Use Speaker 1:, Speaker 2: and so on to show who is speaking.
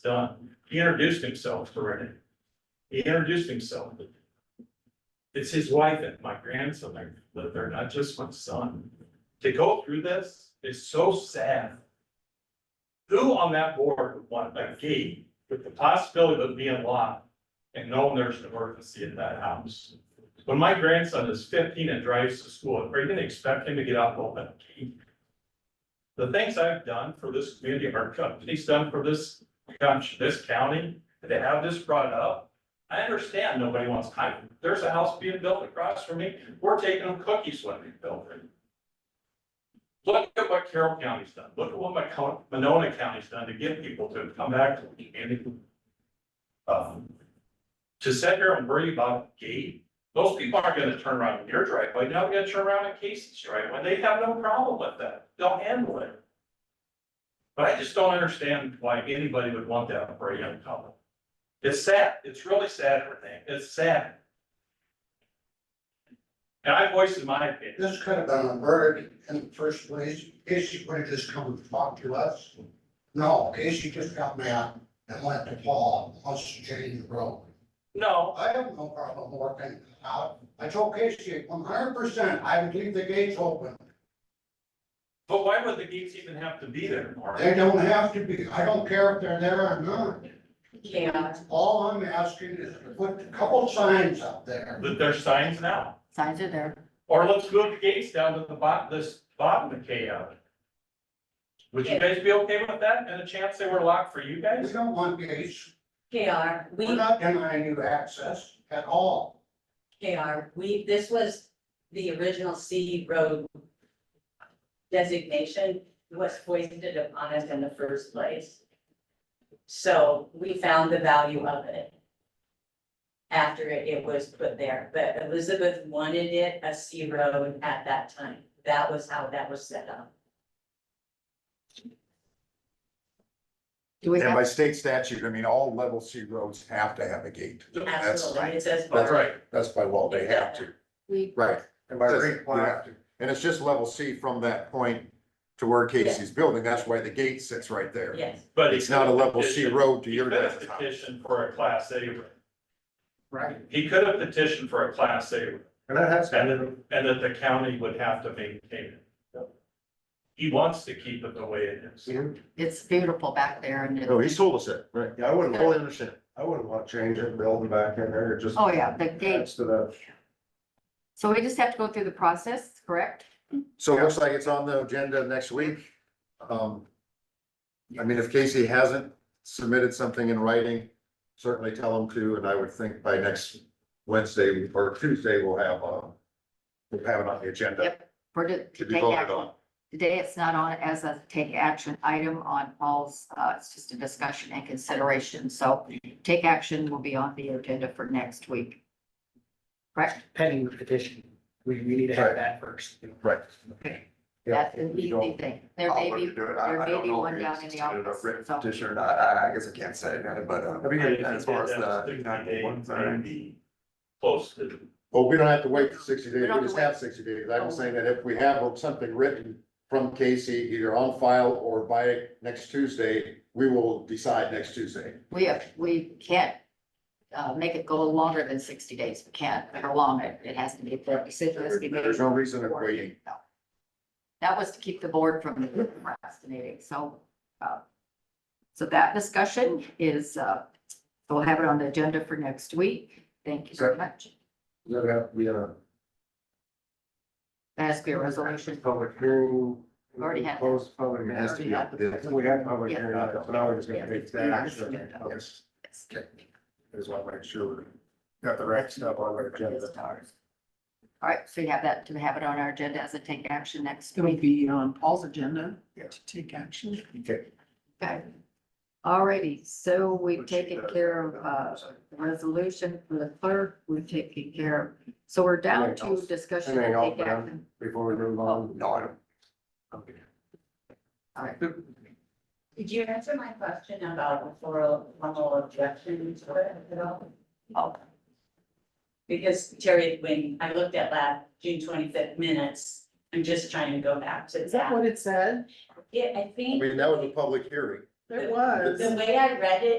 Speaker 1: done. He introduced himself to Renee. He introduced himself. It's his wife and my grandson, that live there, not just my son. To go through this is so sad. Who on that board would want that gate with the possibility of being locked and knowing there's an emergency in that house? When my grandson is fifteen and drives to school, are you gonna expect him to get out and open that gate? the things I've done for this community, our company's done for this, county, this county, to have this brought up. I understand nobody wants, I, there's a house being built across from me, we're taking them cookies when we build it. Look at what Carroll County's done, look at what Macon- Monona County's done to get people to come back to the community. Um, to sit here and worry about a gate, those people aren't gonna turn around in your driveway, now we gotta turn around in Casey's driveway, they have no problem with that, they'll handle it. But I just don't understand why anybody would want that for a young couple. It's sad, it's really sad for them, it's sad. And I voiced my opinion,
Speaker 2: This could have been averted in the first place. Casey would have just come and talked to us. No, Casey just got mad and went to Paul, wants to change the road.
Speaker 1: no,
Speaker 2: I have no problem working it out. I told Casey, one hundred percent, I would leave the gates open.
Speaker 1: but why would the gates even have to be there, Mark?
Speaker 2: They don't have to be, I don't care if they're there or not.
Speaker 3: Yeah,
Speaker 2: All I'm asking is to put a couple signs up there.
Speaker 1: That there's signs now.
Speaker 3: signs are there.
Speaker 1: Or let's move the gates down to the bottom, this bottom of K Alley. Would you guys be okay with that? And a chance they were locked for you
Speaker 2: We
Speaker 1: guys?
Speaker 2: don't want gates.
Speaker 3: KR,
Speaker 2: We're
Speaker 3: we,
Speaker 2: not denying you access at all.
Speaker 3: KR, we, this was the original C road designation was foisted upon us in the first place. So we found the value of it after it it was put there, but Elizabeth wanted it a C road at that time. That was how that was set up.
Speaker 4: Do we
Speaker 5: And
Speaker 4: have,
Speaker 5: by state statute, I mean, all level C roads have to have a gate.
Speaker 3: Absolutely, it says.
Speaker 5: That's right. That's by law, they have to.
Speaker 4: we,
Speaker 5: Right.
Speaker 2: And by
Speaker 5: Says
Speaker 2: green
Speaker 5: we have
Speaker 2: plastic,
Speaker 5: And it's just level C from that point to where Casey's building. That's why the gate sits right there.
Speaker 3: Yes,
Speaker 1: But
Speaker 5: It's not a level C road to
Speaker 1: He
Speaker 5: your
Speaker 1: could have
Speaker 5: guys' house.
Speaker 1: petitioned for a class A road.
Speaker 2: right,
Speaker 1: He could have petitioned for a class A road,
Speaker 2: and that has,
Speaker 1: and then, and that the county would have to maintain it. He wants to keep it the way it is.
Speaker 4: it's beautiful back there and
Speaker 5: No, he
Speaker 4: it's,
Speaker 5: told us that, right?
Speaker 6: Yeah, I wouldn't,
Speaker 4: Totally
Speaker 6: understand. I wouldn't want to change it, building back in there, it just.
Speaker 4: oh yeah, the gate.
Speaker 6: adds to the,
Speaker 4: So we just have to go through the process, correct?
Speaker 5: So it looks like it's on the agenda next week. Um, I mean, if Casey hasn't submitted something in writing, certainly tell him to, and I would think by next Wednesday or Tuesday, we'll have, um, we'll have it on the agenda
Speaker 4: For to,
Speaker 5: to
Speaker 4: to
Speaker 5: be
Speaker 4: take
Speaker 5: voted
Speaker 4: action.
Speaker 5: on.
Speaker 4: Today, it's not on as a take action item on Paul's, uh, it's just a discussion and consideration. So take action will be on the agenda for next week. Correct?
Speaker 7: pending the petition. We, we need to have
Speaker 5: Right.
Speaker 7: that first.
Speaker 5: Right.
Speaker 6: yeah.
Speaker 4: That's an
Speaker 6: you don't-
Speaker 4: easy thing. There
Speaker 6: I'll
Speaker 4: may
Speaker 6: look
Speaker 4: be,
Speaker 6: into it. I-
Speaker 4: there
Speaker 6: I
Speaker 4: may
Speaker 6: don't
Speaker 4: be
Speaker 6: know if
Speaker 4: one
Speaker 6: we
Speaker 4: down in the
Speaker 6: instituted a
Speaker 4: office.
Speaker 6: written
Speaker 4: So
Speaker 6: Petition or not, I, I guess I can't say, that, but, uh, as far as the.
Speaker 1: Close to,
Speaker 5: Well, we don't have to wait for sixty days,
Speaker 4: We
Speaker 5: we
Speaker 4: don't have to Oh.
Speaker 5: just have sixty days, I was saying that if we have something written from Casey, either on file or by next Tuesday, we will decide next Tuesday.
Speaker 4: we have, we can't uh, make it go longer than sixty days. We can't prolong it. It has to be, the decision has to be made.
Speaker 5: There's no reason of waiting.
Speaker 4: No. That was to keep the board from procrastinating, so, uh, so that discussion is, uh, we'll have it on the agenda for next week. Thank you very much.
Speaker 6: We, uh.
Speaker 4: That has to be a resolution.
Speaker 6: Public hearing.
Speaker 4: Already had that.
Speaker 6: Closed public.
Speaker 5: It
Speaker 6: hearing.
Speaker 5: has to be on the-
Speaker 6: We had public
Speaker 4: Yeah.
Speaker 6: hearing, so now we're just
Speaker 4: Yeah.
Speaker 6: gonna make
Speaker 4: Yeah.
Speaker 6: that action.
Speaker 4: Yeah.
Speaker 6: Yes, I just want to make sure we got the right stuff on our agenda.
Speaker 4: All right, so you have that to have it on our agenda as a take action next
Speaker 7: It'll
Speaker 4: week.
Speaker 7: be on Paul's agenda
Speaker 6: Yeah.
Speaker 7: to take action.
Speaker 6: Okay.
Speaker 4: Okay. All righty, so we've taken care of, uh, the resolution for the clerk, we've taken care of. So we're down to discussion and
Speaker 6: Anything else,
Speaker 4: take action.
Speaker 6: Before we move
Speaker 4: Oh,
Speaker 6: on, no, I don't. Okay.
Speaker 4: All right.
Speaker 3: did you answer my question about a formal, formal objection to it at all?
Speaker 4: Oh,
Speaker 3: Because Terry, when I looked at last June twenty-fifth minutes, I'm just trying to go back to that.
Speaker 7: it said?
Speaker 3: Yeah, I
Speaker 5: I
Speaker 3: think
Speaker 5: mean, that was a public hearing.
Speaker 3: There
Speaker 7: was.
Speaker 3: the way I read it